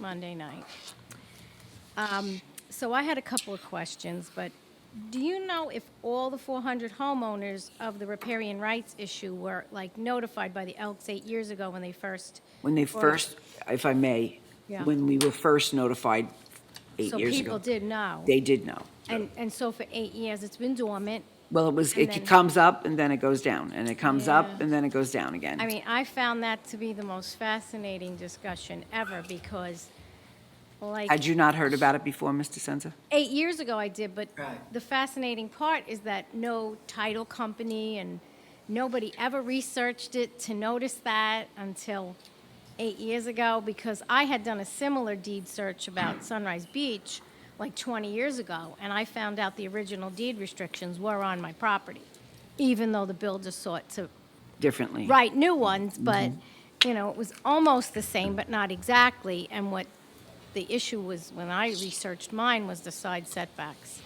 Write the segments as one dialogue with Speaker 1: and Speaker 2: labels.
Speaker 1: Monday night. Um, So I had a couple of questions, but do you know if all the 400 homeowners of the riparian rights issue were like notified by the Elks eight years ago when they first?
Speaker 2: When they
Speaker 1: Or-
Speaker 2: first, if I may,
Speaker 1: Yeah.
Speaker 2: when we were first notified eight
Speaker 1: So
Speaker 2: years
Speaker 1: people
Speaker 2: ago,
Speaker 1: did know?
Speaker 2: they did know.
Speaker 1: And, and so for eight years, it's been dormant.
Speaker 2: Well, it was,
Speaker 1: And then-
Speaker 2: it comes up and then it goes down, and it comes up
Speaker 1: Yeah.
Speaker 2: and then it goes down again.
Speaker 1: I mean, I found that to be the most fascinating discussion ever because like.
Speaker 2: Had you not heard about it before, Mr. Senza?
Speaker 1: Eight years ago I did, but
Speaker 2: Right.
Speaker 1: the fascinating part is that no title company and nobody ever researched it to notice that until eight years ago because I had done a similar deed search about Sunrise Beach like 20 years ago, and I found out the original deed restrictions were on my property, even though the builder sought to
Speaker 2: Differently?
Speaker 1: write new ones, but, you know, it was almost the same, but not exactly. And what the issue was, when I researched mine, was the side setbacks.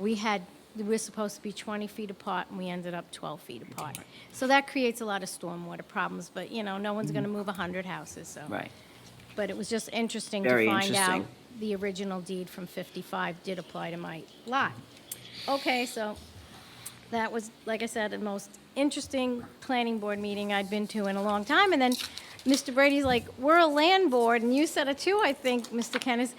Speaker 1: We had, we were supposed to be 20 feet apart, and we ended up 12 feet apart. So that creates a lot of stormwater problems, but, you know, no one's going to move 100 houses, so.
Speaker 2: Right.
Speaker 1: But it was just interesting to
Speaker 2: Very
Speaker 1: find out
Speaker 2: interesting.
Speaker 1: the original deed from 55 did apply to my lot. Okay, so that was, like I said, the most interesting planning board meeting I'd been to in a long time. And then Mr. Brady's like, we're a land board, and you said it too, I think, Mr. Kennis.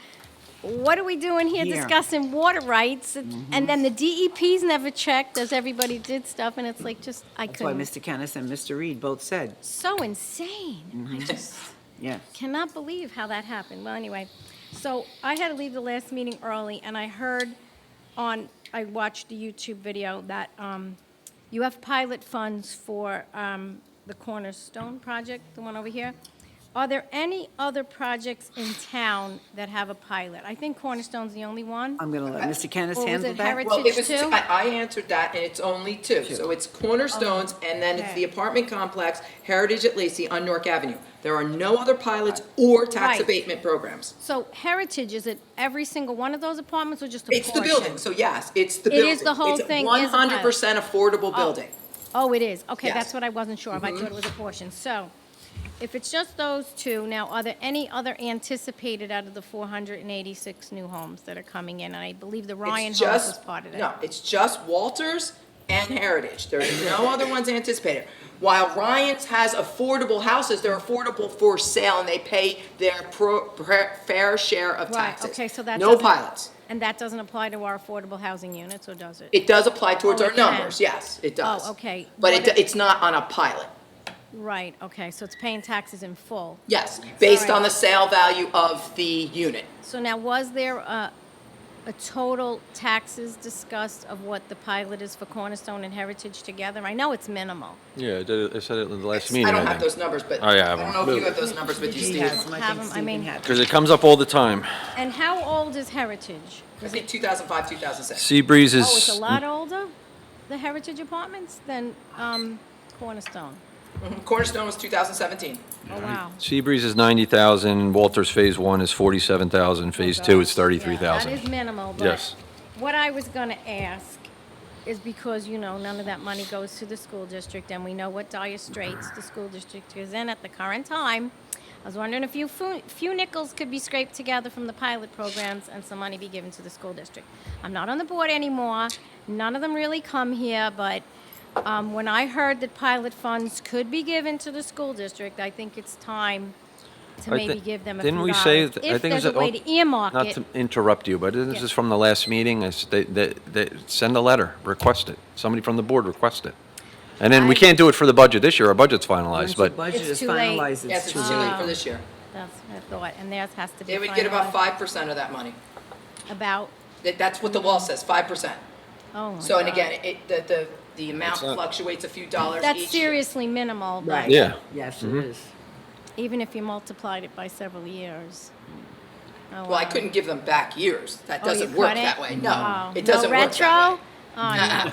Speaker 1: What are we doing here
Speaker 2: Here. Mm-hmm.
Speaker 1: discussing water rights? And then the DEP's never checked, as everybody did stuff, and it's like, just, I
Speaker 2: That's why
Speaker 1: couldn't.
Speaker 2: Mr. Kennis and Mr. Reed both said,
Speaker 1: So insane.
Speaker 2: Mm-hmm.
Speaker 1: I just.
Speaker 2: yes.
Speaker 1: Cannot believe how that happened. Well, anyway, so I had to leave the last meeting early, and I heard on, I watched the YouTube video that um, you have pilot funds for um, the Cornerstone project, the one over here. Are there any other projects in town that have a pilot? I think Cornerstone's the only one.
Speaker 2: I'm going to let Mr. Kennis
Speaker 1: Uh, Well, was
Speaker 2: handle
Speaker 1: it
Speaker 2: that.
Speaker 1: Heritage?
Speaker 3: Well, it was,
Speaker 1: two?
Speaker 3: I, I answered that, and it's only two. So it's Cornerstones, and then it's the
Speaker 1: Okay.
Speaker 3: apartment complex, Heritage at Lacey on Newark Avenue. There are no other pilots or tax
Speaker 1: Right.
Speaker 3: abatement programs.
Speaker 1: So Heritage, is it every single one of those apartments or just a portion?
Speaker 3: It's the building, so yes, it's the
Speaker 1: It is
Speaker 3: building.
Speaker 1: the whole thing is a pilot.
Speaker 3: One hundred percent affordable building.
Speaker 1: Oh, it is. Okay,
Speaker 3: Yes. Mm-hmm.
Speaker 1: that's what I wasn't sure of. I thought it was a portion. So if it's just those two, now are there any other anticipated out of the 486 new homes that are coming in? And I believe the
Speaker 3: It's
Speaker 1: Ryan House
Speaker 3: just-
Speaker 1: is part of that.
Speaker 3: No, it's just Walters and Heritage. There's no other ones anticipated. While Ryan's has affordable houses, they're affordable for sale, and they pay their pro, pre- fair share of
Speaker 1: Right,
Speaker 3: taxes.
Speaker 1: okay, so that
Speaker 3: No
Speaker 1: doesn't-
Speaker 3: pilots.
Speaker 1: And that doesn't apply to our affordable housing units, or does it?
Speaker 3: It does apply towards
Speaker 1: Oh,
Speaker 3: our
Speaker 1: it can.
Speaker 3: numbers, yes, it does.
Speaker 1: Oh, okay. What
Speaker 3: But it,
Speaker 1: if-
Speaker 3: it's not on a pilot,
Speaker 1: Right, okay, so it's paying taxes in full.
Speaker 3: yes, based
Speaker 1: Alright.
Speaker 3: on the sale value of the unit.
Speaker 1: So now, was there a, a total taxes discussed of what the pilot is for Cornerstone and Heritage together? I know it's minimal.
Speaker 4: Yeah, I did it- I said it in the last
Speaker 3: I
Speaker 4: meeting,
Speaker 3: don't
Speaker 4: I
Speaker 3: have those
Speaker 4: think.
Speaker 3: numbers, but
Speaker 4: Oh,
Speaker 3: I
Speaker 4: yeah, I
Speaker 3: don't
Speaker 4: have
Speaker 3: know if
Speaker 4: them.
Speaker 3: you have those numbers with you,
Speaker 2: Yes,
Speaker 3: Steve.
Speaker 2: and I
Speaker 1: Have
Speaker 2: think
Speaker 1: them, I
Speaker 2: Stephen
Speaker 1: mean-
Speaker 2: had-
Speaker 4: Because it comes up all the time.
Speaker 1: And how old is Heritage?
Speaker 3: I think 2005, 2006.
Speaker 4: Seabreeze
Speaker 1: Oh, it's a
Speaker 4: is,
Speaker 1: lot older, the Heritage Apartments, than um, Cornerstone.
Speaker 3: Cornerstone was 2017.
Speaker 1: Oh, wow.
Speaker 4: Seabreeze is 90,000, Walters Phase 1 is 47,000, Phase 2 is
Speaker 1: Oh, That
Speaker 4: 33,000.
Speaker 1: is minimal, but
Speaker 4: Yes.
Speaker 1: what I was going to ask is because, you know, none of that money goes to the school district, and we know what dire straits the school district is in at the current time. I was wondering if you fu- few nickels could be scraped together from the pilot programs and some money be given to the school district. I'm not on the board anymore. None of them really come here, but um, when I heard that pilot funds could be given to the school district, I think it's time to
Speaker 4: I thi-
Speaker 1: maybe give them a few
Speaker 4: Didn't we
Speaker 1: dollars.
Speaker 4: say, th- I
Speaker 1: If
Speaker 4: think it
Speaker 1: there's
Speaker 4: was...
Speaker 1: a way
Speaker 4: oh,
Speaker 1: to earmark
Speaker 4: Not
Speaker 1: it.
Speaker 4: to interrupt you, but this
Speaker 1: Yeah.
Speaker 4: is from the last meeting, I s- they- they- they- send a letter, request it. Somebody from the board request it. And then we
Speaker 1: I-
Speaker 4: can't do it for the budget this year, our budget's
Speaker 2: Once
Speaker 4: finalized,
Speaker 2: the
Speaker 4: but
Speaker 2: budget
Speaker 1: It's
Speaker 2: is
Speaker 1: too late.
Speaker 2: finalized, it's
Speaker 3: Yes, it's
Speaker 2: too
Speaker 3: too
Speaker 2: late.
Speaker 3: late for this year.
Speaker 1: That's what I thought, and theirs has to be.
Speaker 3: They would get about
Speaker 1: finalized.
Speaker 3: 5% of that money.
Speaker 1: About,
Speaker 3: That- That's what the law says, 5%.
Speaker 1: oh my
Speaker 3: So, and
Speaker 1: God.
Speaker 3: again, it, the, the, the amount
Speaker 4: It's not-
Speaker 3: fluctuates a few dollars
Speaker 1: That's
Speaker 3: each year.
Speaker 1: seriously minimal, but
Speaker 2: Right.
Speaker 4: Yeah.
Speaker 2: Yes, it is.
Speaker 1: even if you multiplied it by several years. Oh,
Speaker 3: Well, I
Speaker 1: wow.
Speaker 3: couldn't give them back years. That
Speaker 1: Oh,
Speaker 3: doesn't
Speaker 1: you
Speaker 3: work
Speaker 1: couldn't?
Speaker 3: that way.
Speaker 1: Oh,
Speaker 3: No, it doesn't
Speaker 1: no
Speaker 3: work that way.
Speaker 1: retro? Oh, no.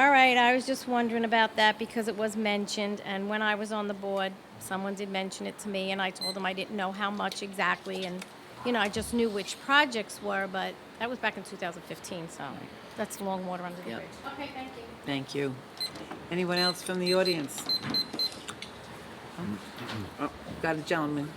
Speaker 1: All right, I was just wondering about that because it was mentioned, and when I was on the board, someone did mention it to me, and I told them I didn't know how much exactly, and, you know, I just knew which projects were, but that was back in 2015, so that's long water under the
Speaker 2: Yep.
Speaker 1: bridge. Okay, thank you.
Speaker 2: Thank you. Anyone else from the audience? Oh, Got a gentleman.